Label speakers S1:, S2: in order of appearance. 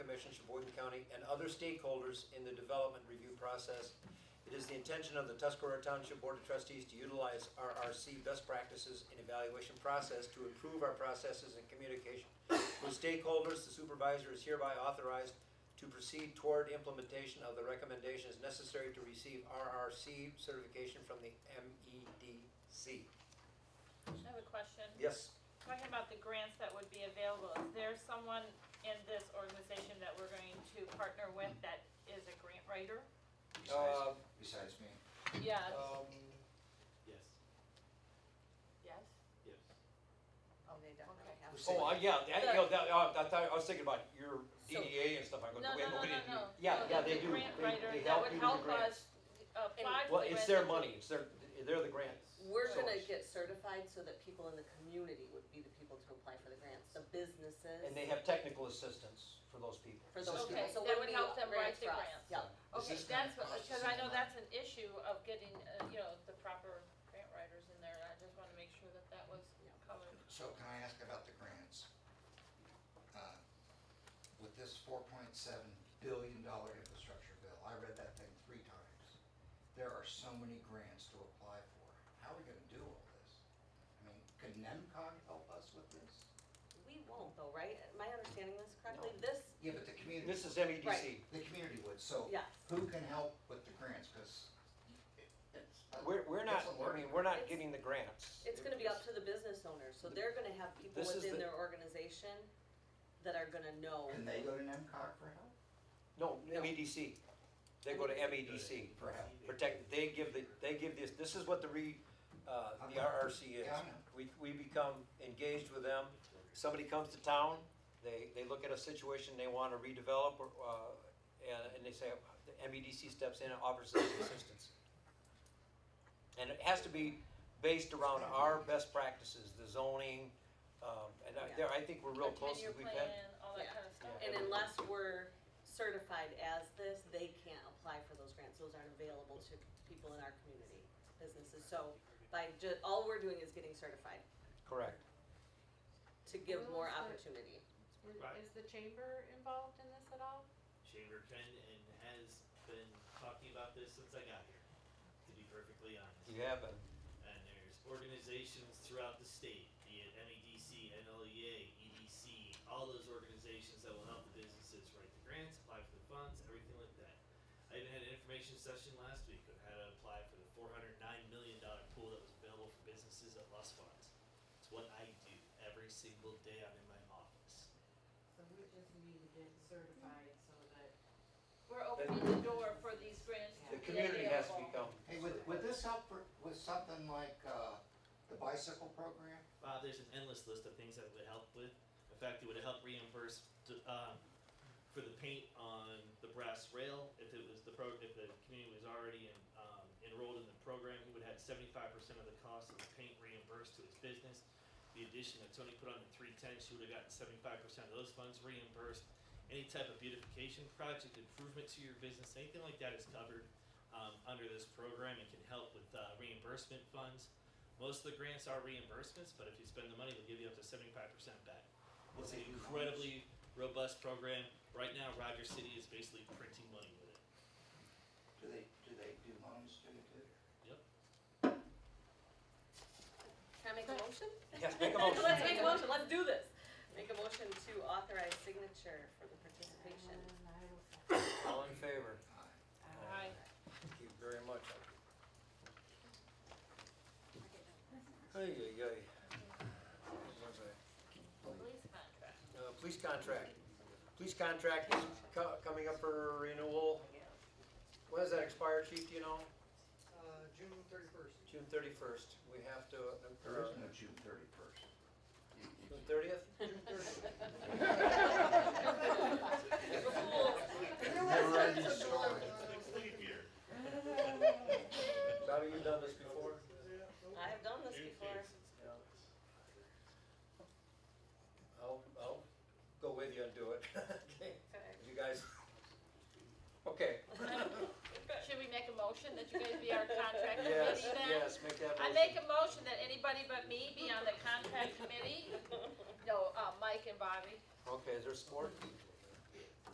S1: Commission, Sheboygan County, and other stakeholders in the development review process. It is the intention of the Tuscarora Township Board of Trustees to utilize RRC best practices and evaluation process to improve our processes and communication with stakeholders. The supervisor is hereby authorized to proceed toward implementation of the recommendations necessary to receive RRC certification from the E MEDC.
S2: I have a question.
S1: Yes,
S2: Talking about the grants that would be available, is there someone in this organization that we're going to partner with that is a grant writer?
S1: uh,
S3: Besides, besides me.
S2: Yes,
S4: Uh,
S1: um,
S5: Yes,
S2: yes,
S5: yes.
S6: Oh, they definitely have.
S1: Okay.
S4: Oh, uh, yeah, that, you know, that, uh, I thought, I was thinking about your DDA and stuff, I go,
S2: No,
S4: wait, but
S2: no, no,
S4: we
S2: no,
S4: didn't do.
S2: no.
S4: Yeah,
S2: No,
S4: yeah,
S2: the-
S4: they do,
S2: the
S4: they,
S2: grant writer
S4: they
S2: that
S4: help
S2: would
S4: you with the
S2: help
S4: grants.
S2: us apply
S4: Well,
S2: for the
S4: it's
S2: grant
S4: their
S2: that
S4: money,
S2: we-
S4: it's their, they're the grants.
S6: We're gonna
S4: source.
S6: get certified so that people in the community would be the people to apply for the grants, the businesses.
S4: And they have technical assistance for those people.
S6: For those
S2: Okay,
S6: people, so
S2: that
S6: it
S2: would
S6: would be
S2: help them
S6: grants
S2: write the
S6: for us.
S2: grants.
S6: Yeah.
S3: Is
S2: Okay,
S3: this gonna
S2: that's, what-
S3: cost us
S2: because I know
S3: any
S2: that's an issue of getting, uh, you know, the proper grant writers in there, and I just wanna make sure that that was
S6: Yeah.
S2: covered.
S3: So can I ask about the grants? Uh, With this four point seven billion dollar infrastructure bill, I read that thing three times. There are so many grants to apply for. How are we gonna do all this? I mean, can NEMCOG help us with this?
S6: We won't though, right? Am I understanding this correctly?
S4: No.
S6: This,
S3: Yeah, but the community,
S4: This is E MEDC.
S6: Right.
S3: the community would, so
S6: Yes.
S3: who can help with the grants? Because it's.
S4: We're, we're not,
S3: it's
S4: I
S3: a learning
S4: mean, we're not
S6: It's-
S4: getting the grants.
S6: it's gonna be up to the business owners, so they're gonna have people
S4: This is
S6: within
S4: the-
S6: their organization that are gonna know.
S3: Can they go to NEMCOG for help?
S4: No, MEDC. They go to MEDC.
S3: For help?
S4: Protect, they give the, they give this, this is what the re, uh, the
S3: Yeah,
S4: RRC is.
S3: Yeah, I know.
S4: We, we become engaged with them. Somebody comes to town, they, they look at a situation they want to redevelop, or, uh, and, and they say, the MEDC steps in and offers us assistance. And it has to be based around our best practices, the zoning, um, and I, there, I think we're real
S2: Our
S4: close,
S2: tenure
S4: we've had,
S2: plan, all that
S6: Yeah.
S2: kind of stuff.
S6: And unless we're certified as this, they can't apply for those grants. Those aren't available to people in our community, businesses. So by ju, all we're doing is getting certified
S4: correct.
S6: to give more
S7: Well, it's
S6: opportunity.
S7: Is-
S5: Right.
S7: Is the chamber involved in this at all?
S5: Chamber can and has been talking about this since I got here, to be perfectly honest.
S4: You have, a-
S5: And there's organizations throughout the state, be it E MEDC, NLEA, EDC, E all those organizations that will help the businesses write the grants, apply for the funds, everything like that. I even had an information session last week on how to apply for the four hundred nine million dollar pool that was available for businesses that lost funds. It's what I do every single day I'm in my office.
S7: So we just need to get certified so that.
S2: We're opening the door for these grants
S4: the
S2: to be
S4: community has to
S2: available.
S4: become.
S3: Hey, would, would this help for, with something like, uh, the bicycle program?
S5: Bob, there's an endless list of things that it would help with. In fact, it would help reimburse to, um, for the paint on the brass rail. If it was the pro, if the community was already in, um, enrolled in the program, he would have seventy-five percent of the cost of the paint reimbursed to his business. The addition that Tony put on the three ten, she would have gotten seventy-five percent of those funds reimbursed. Any type of beautification project, improvement to your business, anything like that is covered, um, under this program. It can help with, uh, reimbursement funds. Most of the grants are reimbursements, but if you spend the money, they'll give you up to seventy-five percent back. It's an incredibly robust program. Right now, Roger City is basically printing money with it.
S3: Do they, do they do loans to it too?
S6: Can I make a motion?
S4: Yes, make a motion.
S6: Let's make a motion, let's do this. Make a motion to authorize signature for the participation.
S7: And I will second.
S4: All in favor?
S2: Aye.
S3: Aye.
S4: Thank you very much. Ay, ay, ay. Where was I?
S2: Police contract.
S4: Uh, Police contract. Police contract is co- coming up for renewal. When does that expire, chief, do you know?
S8: Uh, June thirty-first.
S4: June 31st. We have to,
S3: There
S4: uh,
S3: is no June thirty-first.
S4: June 30th? Bobby, you've done this before?
S6: I have done this before.
S4: Yeah. I'll, I'll go with you and do it. Okay.
S6: Okay.
S4: You guys? Okay.
S2: Should we make a motion that you guys be our contract committee then?
S4: Yes, yes, make that motion.
S2: I make a motion that anybody but me be on the contract committee. No, uh, Mike and Bobby.
S4: Okay, is there support?